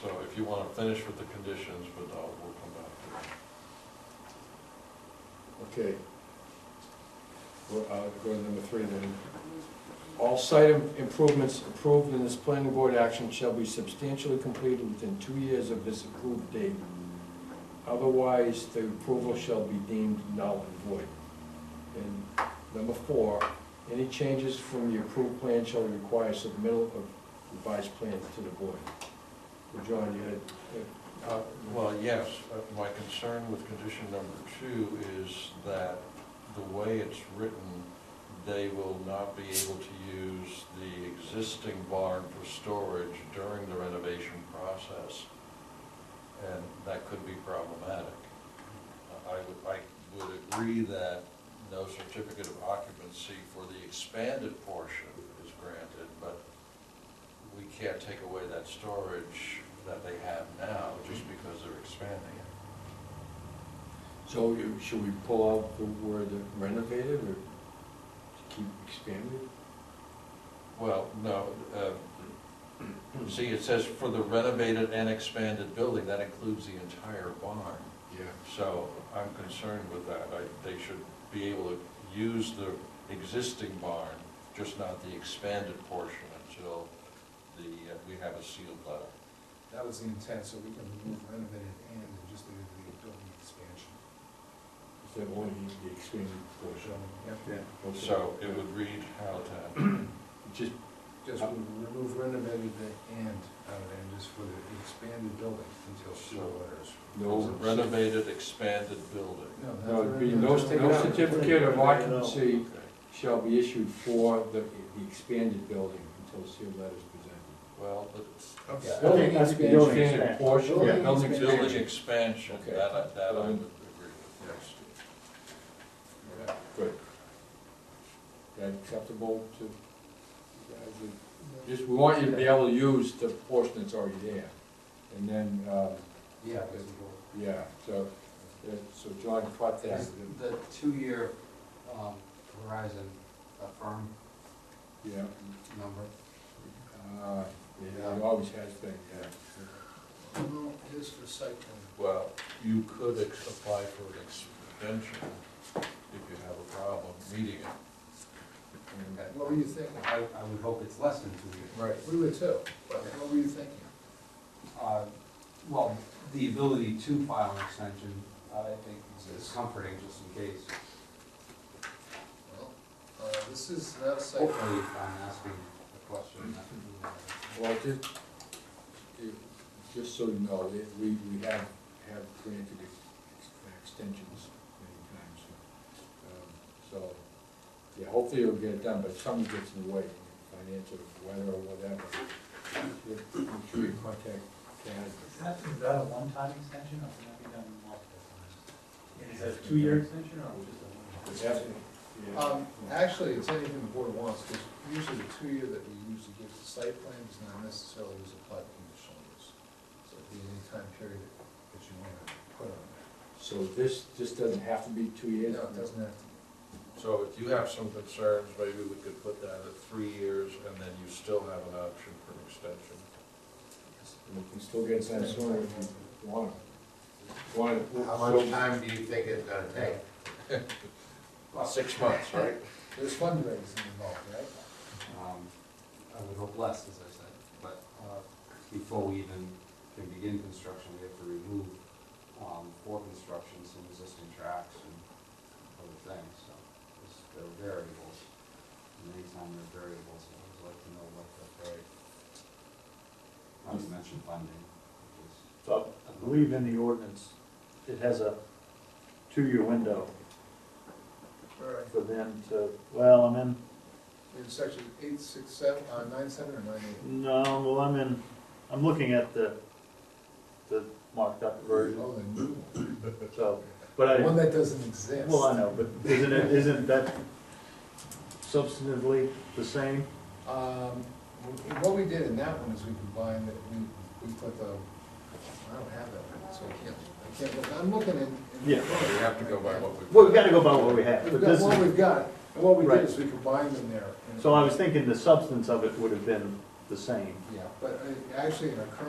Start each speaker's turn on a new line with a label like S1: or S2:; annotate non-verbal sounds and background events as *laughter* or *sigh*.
S1: So if you want to finish with the conditions, but I'll, we'll come back to
S2: Okay. We're, uh, go to number three then. All site im- improvements approved in this planning board action shall be substantially completed within two years of this approved date. Otherwise, the approval shall be deemed null and void. And number four, any changes from the approved plan shall require submittal of revised plans to the board. Well, John, you had,
S1: it. Uh, Well, yes, uh, my concern with condition number two is that the way it's written, they will not be able to use the existing barn for storage during the renovation process. And that could be problematic. I would, I would agree that no certificate of occupancy for the expanded portion is granted, but we can't take away that storage that they have now just because they're expanding it.
S2: So you- should we pull out the word renovated or to keep expanded?
S1: Well, no, uh, *clears throat* see, it says for the renovated and expanded building, that includes the entire barn.
S2: Yeah.
S1: So I'm concerned with that. I, they should be able to use the existing barn, just not the expanded portion until the, uh, we have a sealed letter.
S3: That was the intent, so we can remove renovated and and just leave the building expansion.
S2: Is that only the expanded portion?
S3: Yep.
S2: Okay.
S1: So it would read how
S2: *clears throat*
S1: to,
S2: Just,
S3: Just
S2: Uh,
S3: remove renovated and out of there, just for the expanded building until sewer letters.
S2: No
S1: renovated, expanded building.
S2: no, it'd be no,
S3: that's-
S2: no certificate of occupancy
S1: Okay.
S2: shall be issued for the, the expanded building until sealed letters presented.
S1: Well, it's
S3: Okay.
S4: Building
S3: That's
S4: expansion. Building
S2: Expanded
S4: expansion.
S2: portion,
S3: Building
S2: building
S3: expansion.
S2: expansion.
S1: building expansion,
S2: Okay.
S1: that, I- that I would agree with, yes.
S3: Yeah.
S2: Good. That acceptable to, you guys? We- just, we want you to be able to use the portion that's already there. And then, uh,
S3: Yeah.
S2: yeah, so, yeah, so John caught that.
S5: Is the two-year um, horizon a firm
S2: Yeah,
S5: number?
S2: uh, yeah, it always has been, yeah.
S3: Well, it is for site plan.
S1: Well, you could ex- apply for an extension if you have a problem meeting it.
S2: And-
S5: Okay.
S3: What were you thinking?
S5: I, I would hope it's less than two years.
S2: Right.
S3: We were too, but what were you thinking?
S5: Uh, Well, the ability to file an extension, uh, I think is- is comforting just in case.
S3: Well, uh, this is not a site plan.
S5: Hopefully, if I'm asking a question. that-
S2: Well, just, it- just so you know, it- we, we have, have granted ex- extensions many times. Um, So, yeah, hopefully it'll get it done, but something gets in the way, financial, weather or whatever. I'm sure you contact Kaz.
S6: That, is that a one-time extension, or can that be done multiple times? Is that a two-year extension, or just a one?
S2: Is that- yeah.
S3: Um, actually, it's anything the board wants, because usually the two-year that we usually give to site plan does not necessarily always apply to conditional use. So it'd be any time period that you want to put on there.
S2: So this, this doesn't have to be two years?
S3: No, it doesn't have to.
S1: So if you have some concerns, maybe we could put that at three years, and then you still have an option for an extension.
S2: We can still get it done sooner if you want. Want it.
S7: How much time do you think it's gonna take?
S1: Six months, right?
S3: There's fundraising involved, right?
S5: Um, I would hope less, as I said, but uh, before we even can begin construction, we have to remove um, for construction some existing tracks and other things, so it's- there are variables. And anytime there are variables, I always like to know what the, not to mention funding, which is
S4: So I believe in the ordinance, it has a two-year window
S3: All right,
S4: for them to, well, I'm in,
S3: in section eight, six, seven, uh, nine, seven, or nine, eight?
S4: no, well, I'm in, I'm looking at the, the marked up version,
S3: Oh, the new one,
S4: so, but I.
S3: The one that doesn't exist.
S4: Well, I know, but isn't it, isn't that substantively the same?
S3: Um, what we did in that one is we combined, it, we, we put the, I don't have that, one, so I can't, I can't look, I'm looking in. in-
S4: Yeah.
S1: We have to go by what we.
S4: Well, we've gotta go by what we have,
S3: We've
S4: but
S3: got
S4: this
S3: what
S4: is,
S3: we've got, and what we
S4: Right.
S3: did is we combined them there.
S4: so I was thinking the substance of it would have been the same.
S3: Yeah, but uh, actually in our current